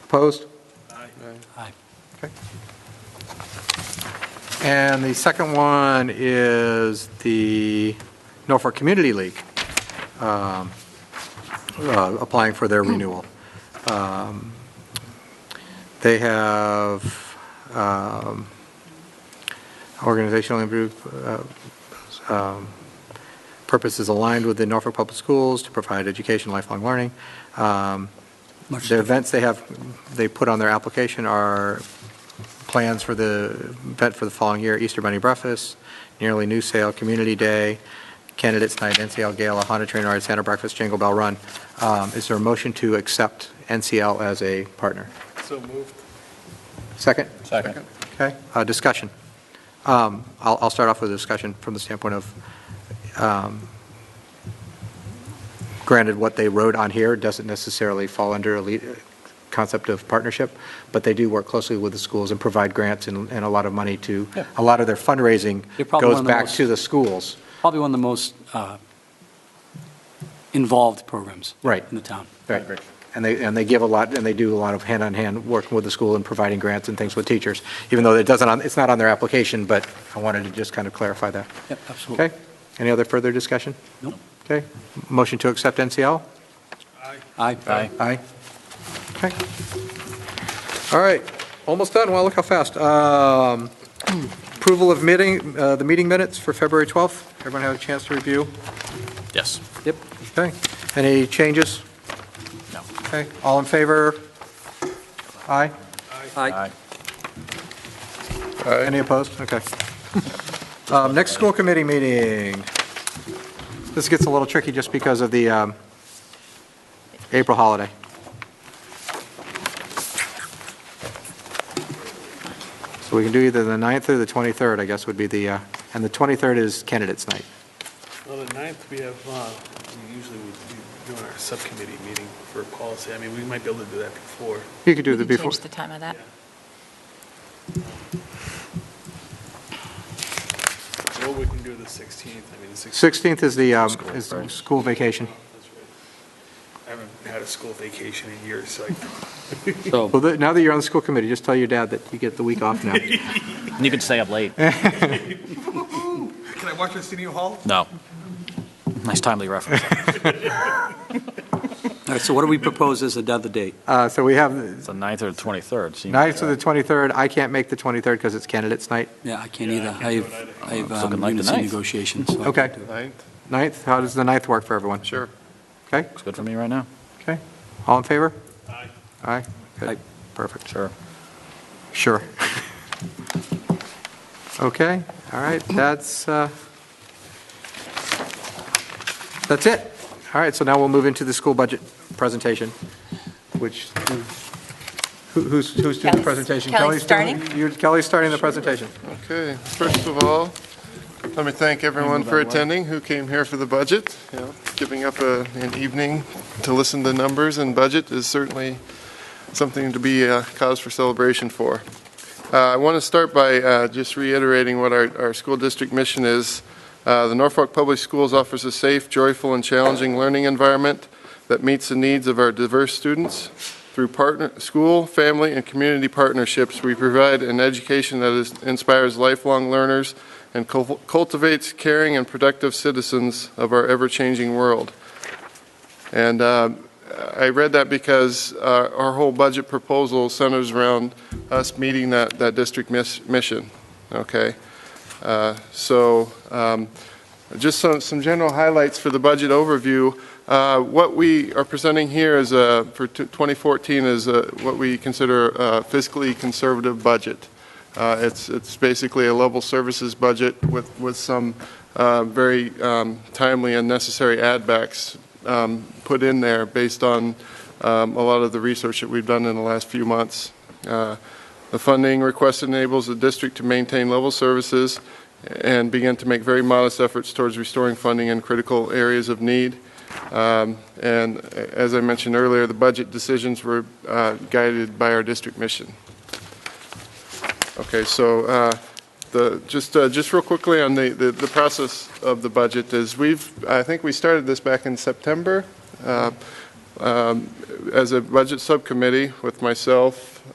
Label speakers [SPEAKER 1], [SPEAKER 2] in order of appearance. [SPEAKER 1] Opposed?
[SPEAKER 2] Aye.
[SPEAKER 1] Okay. And the second one is the Norfolk Community League um, uh, applying for their renewal. Um, They have um, organizational improve- uh, um, purposes aligned with the Norfolk Public Schools to provide education, lifelong learning. Um,
[SPEAKER 2] Much
[SPEAKER 1] The
[SPEAKER 2] different.
[SPEAKER 1] events they have, they put on their application are plans for the event for the following year, Easter Bunny Breakfast, Nearly New Sale, Community Day, Candidates Night, NCL Gala, Honda Train Ride, Santa Breakfast, Jingle Bell Run. Um, Is there a motion to accept NCL as a partner?
[SPEAKER 3] So moved.
[SPEAKER 1] Second?
[SPEAKER 3] Second.
[SPEAKER 1] Okay, uh, discussion. Um, I'll, I'll start off with a discussion from the standpoint of, um, granted, what they wrote on here doesn't necessarily fall under a lead, concept of partnership, but they do work closely with the schools and provide grants and, and a lot of money to,
[SPEAKER 2] Yeah.
[SPEAKER 1] a lot of their fundraising
[SPEAKER 2] They're probably one
[SPEAKER 1] goes
[SPEAKER 2] of the
[SPEAKER 1] back
[SPEAKER 2] most-
[SPEAKER 1] to the schools.
[SPEAKER 2] Probably one of the most uh, involved programs.
[SPEAKER 1] Right.
[SPEAKER 2] In the town.
[SPEAKER 1] Right. And they, and they give a lot, and they do a lot of hand-on-hand working with the school and providing grants and things with teachers, even though it doesn't, on- it's not on their application, but I wanted to just kind of clarify that.
[SPEAKER 2] Yep, absolutely.
[SPEAKER 1] Okay? Any other further discussion?
[SPEAKER 2] Nope.
[SPEAKER 1] Okay? Motion to accept NCL?
[SPEAKER 2] Aye. Aye.
[SPEAKER 1] Aye. Okay. All right, almost done. Wow, look how fast. Um, Approval of meeting, uh, the meeting minutes for February 12th. Everyone have a chance to review?
[SPEAKER 4] Yes.
[SPEAKER 2] Yep.
[SPEAKER 1] Okay. Any changes?
[SPEAKER 4] No.
[SPEAKER 1] Okay, all in favor? Aye?
[SPEAKER 2] Aye.
[SPEAKER 1] Uh, Any opposed? Okay. Um, Next school committee meeting. This gets a little tricky just because of the um, April holiday. So we can do either the 9th or the 23rd, I guess, would be the, uh, and the 23rd is candidates' night.
[SPEAKER 3] Well, the ninth, we have, uh, we usually we do doing our subcommittee meeting for policy. I mean, we might be able to do that before.
[SPEAKER 1] You could do
[SPEAKER 5] We
[SPEAKER 1] the
[SPEAKER 5] can
[SPEAKER 1] before.
[SPEAKER 5] change the time of that.
[SPEAKER 3] Or we can do the sixteenth, I mean, the sixteenth.
[SPEAKER 1] 16th is the, um, is the school vacation.
[SPEAKER 3] I haven't had a school vacation in years, so I-
[SPEAKER 2] So,
[SPEAKER 1] Well, the- now that you're on the school committee, just tell your dad that you get the week off now.
[SPEAKER 4] And you can stay up late.
[SPEAKER 3] Can I watch Arsenio Hall?
[SPEAKER 4] No. Nice timely reference.
[SPEAKER 2] all right, so what do we propose as another date?
[SPEAKER 1] Uh, So we have
[SPEAKER 4] It's the 9th or the 23rd. seems-
[SPEAKER 1] Ninth to the 23rd, I can't make the 23rd because it's candidates' night.
[SPEAKER 2] Yeah, I can't
[SPEAKER 3] Yeah, I
[SPEAKER 2] either.
[SPEAKER 3] can't
[SPEAKER 2] I
[SPEAKER 3] do
[SPEAKER 2] have,
[SPEAKER 3] it
[SPEAKER 2] I have
[SPEAKER 4] It's looking
[SPEAKER 2] um,
[SPEAKER 4] like the
[SPEAKER 2] units in
[SPEAKER 4] ninth.
[SPEAKER 2] negotiations. so I
[SPEAKER 1] Okay.
[SPEAKER 2] can't do it.
[SPEAKER 3] Ninth?
[SPEAKER 1] 9th, how does the 9th work for everyone?
[SPEAKER 3] Sure.
[SPEAKER 1] Okay,
[SPEAKER 4] Looks good for me right now.
[SPEAKER 1] okay. All in favor?
[SPEAKER 3] Aye.
[SPEAKER 1] Aye? Good.
[SPEAKER 2] Aye.
[SPEAKER 1] Perfect.
[SPEAKER 4] Sure.
[SPEAKER 1] Sure. Okay, all right, that's, uh, that's it. All right, so now we'll move into the school budget presentation, which, who- who's, who's doing the
[SPEAKER 5] Kelly's-
[SPEAKER 1] presentation?
[SPEAKER 5] Kelly's
[SPEAKER 1] doing- you- Kelly's starting the presentation.
[SPEAKER 6] Okay, first of all, let me thank everyone for attending who came here for the budget. You know, Giving up a- an evening to listen to numbers and budget is certainly something to be a cause for celebration for. Uh, I want to start by uh, just reiterating what our, our school district mission is. Uh, The Norfolk Public Schools offers a safe, joyful, and challenging learning environment that meets the needs of our diverse students. Through partner, school, family, and community partnerships, we provide an education that is, inspires lifelong learners and cul- cultivates caring and productive citizens of our ever-changing world. And uh, I read that because uh, our whole budget proposal centers around us meeting that, that district miss- mission, okay? Uh, So um, just some, some general highlights for the budget overview. Uh, What we are presenting here is, a- for t- 2014, is a- what we consider a fiscally conservative budget. Uh, It's, it's basically a level services budget with, with some uh, very um, timely and necessary add-backs um, put in there based on um, a lot of the research that we've done in the last few months. Uh, The funding request enables the district to maintain level services and begin to make very modest efforts towards restoring funding in critical areas of need. Um, And a- as I mentioned earlier, the budget decisions were uh, guided by our district mission. Okay, so uh, the, just, uh, just real quickly on the, the the process of the budget is we've, I think we started this back in September. Uh, um, as a budget subcommittee with myself,